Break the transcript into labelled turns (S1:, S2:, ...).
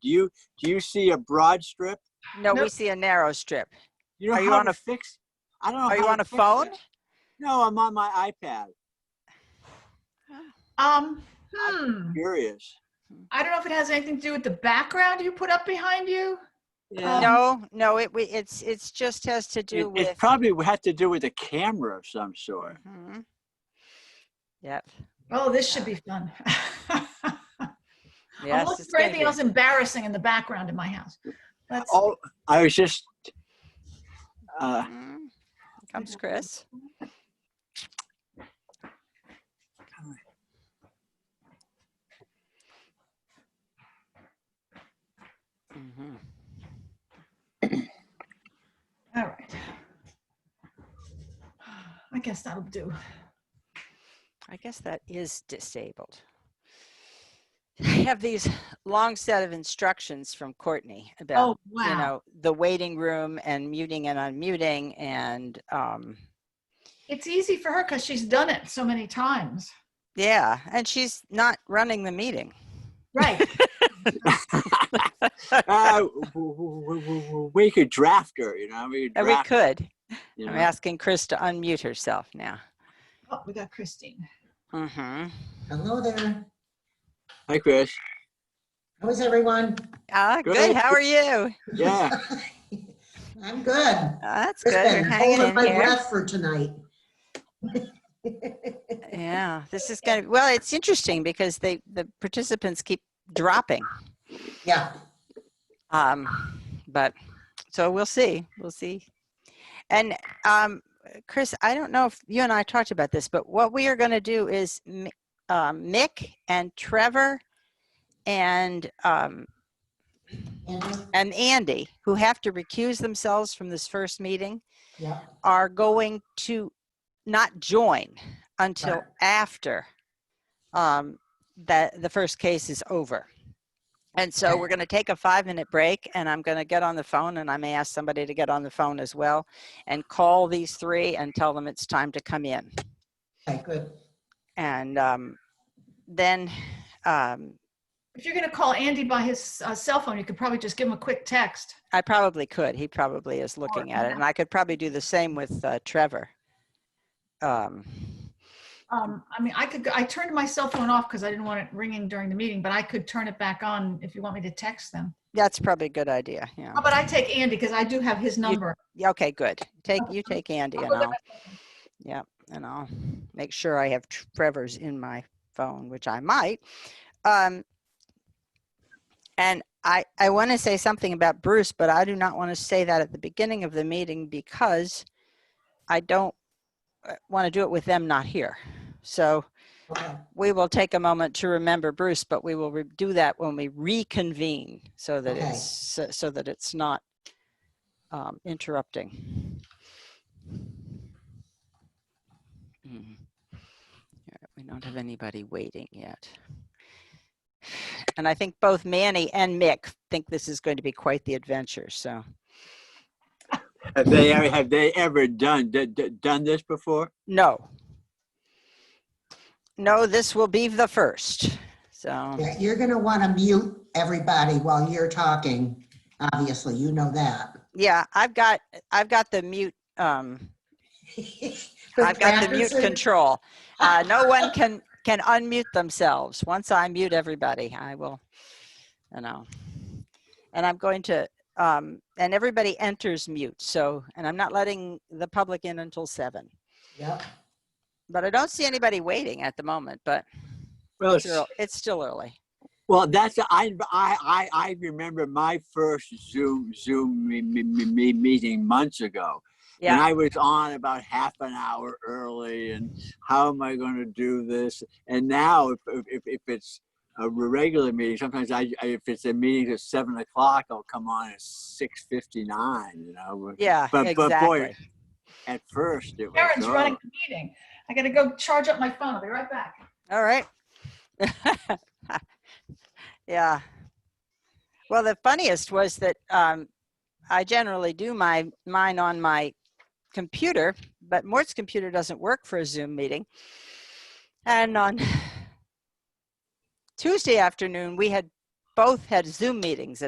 S1: Do you, do you see a broad strip?
S2: No, we
S3: Nope.
S2: see a narrow strip.
S1: You know
S2: Are you
S1: how
S2: on
S1: to
S2: a-
S1: fix? I don't know.
S2: Are
S1: how
S2: you
S1: to
S2: on a
S1: fix that.
S2: phone?
S1: No, I'm on my iPad.
S3: Um, hmm,
S1: Curious.
S3: I don't know if it has anything to do with the background you put up behind you.
S1: Yeah.
S2: No, no, it, we- it's, it's just has
S1: Um,
S2: to
S1: It,
S2: do
S1: it
S2: with.
S1: probably would have to do with a camera of some sort.
S2: Mhm. Yep,
S3: Oh, this should be fun.
S1: Oh,
S3: I'm
S2: yes.
S3: looking
S2: it's
S3: for
S2: gonna
S3: anything
S2: be.
S3: else embarrassing in the background in my house. Let's,
S1: Oh, I was just, uh,
S2: Mm. Comes Chris. Mhm.
S3: all right. I guess that'll do.
S2: I guess that is disabled. I have these long set of instructions from Courtney about
S3: Oh,
S2: you
S3: wow.
S2: know the waiting room and muting and unmuting and um
S3: It's easy for her because she's done it so many times.
S2: yeah and she's not running the meeting
S3: Right.
S1: uh, w- w- w- w- we could draft her, you know, we could
S2: and Uh, we
S1: draft,
S2: could
S1: you
S2: i'm
S1: know.
S2: asking chris to unmute herself now
S3: Oh, we got Christine.
S2: mm-hmm.
S4: Hello there.
S1: Hi, Chris.
S4: How is everyone?
S2: ah
S1: Good.
S2: good. how are you
S1: Yeah.
S4: I'm good.
S2: Ah, that's
S4: Just
S2: good
S4: been
S2: you're hanging
S4: holding
S2: in
S4: my
S2: here
S4: breath for tonight.
S2: yeah this is gonna well it's interesting because they the participants keep dropping
S4: Yeah,
S2: Um, but so we'll see. We'll see. And um, Chris, I don't know if you and I talked about this, but what we are going to do is Mi- um, Mick and Trevor and um,
S4: and,
S2: and Andy, who have to recuse themselves from this first meeting,
S4: yeah,
S2: are going to not join until
S4: Right.
S2: after um, that the first case is over. And so
S4: Okay.
S2: we're going to take a five minute break and I'm going to get on the phone and I may ask somebody to get on the phone as well and call these three and tell them it's time to come in.
S4: okay, good.
S2: And um, then, um,
S3: If you're going to call Andy by his uh, cell phone, you could probably just give him a quick text.
S2: I probably could. He probably is looking at it. And I could probably do the same with uh, Trevor. Um,
S3: Um, I mean, I could, go- I turned my cell phone off because I didn't want it ringing during the meeting, but I could turn it back on if you want me to text them.
S2: that's probably a good idea. Yeah.
S3: How about I take Andy because I do have his number.
S2: Yeah, okay, good. Take, you take Andy and
S3: look at
S2: I'll, yeah, and I'll make sure I have Trevor's in my phone, which I might. Um, and I, I want to say something about Bruce, but I do not want to say that at the beginning of the meeting because I don't want to do it with them not here. So
S4: Okay,
S2: we will take a moment to remember Bruce, but we will re- do that when we reconvene so that
S4: Okay.
S2: it's, so- so that it's not um, interrupting. Mm. All right, We don't have anybody waiting yet. And I think both Manny and Mick think this is going to be quite the adventure, so.
S1: Have they ever, have they ever done, d- d- done this before?
S2: No. No, this will be the first, so,
S4: Yeah, you're gonna want to mute everybody while you're talking. Obviously, you know that.
S2: yeah, I've got, I've got the mute, um, I've got the mute control. Uh, no one can, can unmute themselves. Once I mute everybody, I will, you know. And I'm going to, um, and everybody enters mute, so, and I'm not letting the public in until seven.
S4: Yep,
S2: But I don't see anybody waiting at the moment, but
S1: Well,
S2: it's
S1: it's-
S2: ear- it's still early.
S1: well, that's, I, I, I, I remember my first Zoom, Zoom me, me, me, me- meeting months ago. And
S2: Yeah.
S1: I was on about half an hour early and how am I going to do this? And now if, if, if- if it's a regular meeting, sometimes I, I- if it's a meeting at seven o'clock, I'll come on at 6.59, you know.
S2: Yeah,
S1: But- but boy,
S2: exactly.
S1: At first it was.
S3: Karen's
S1: oh.
S3: running the meeting. I got to go charge up my phone. I'll be right back.
S2: All right. yeah. Well, the funniest was that um, I generally do my mine on my computer, but Mort's computer doesn't work for a Zoom meeting. And on Tuesday afternoon, we had both had Zoom meetings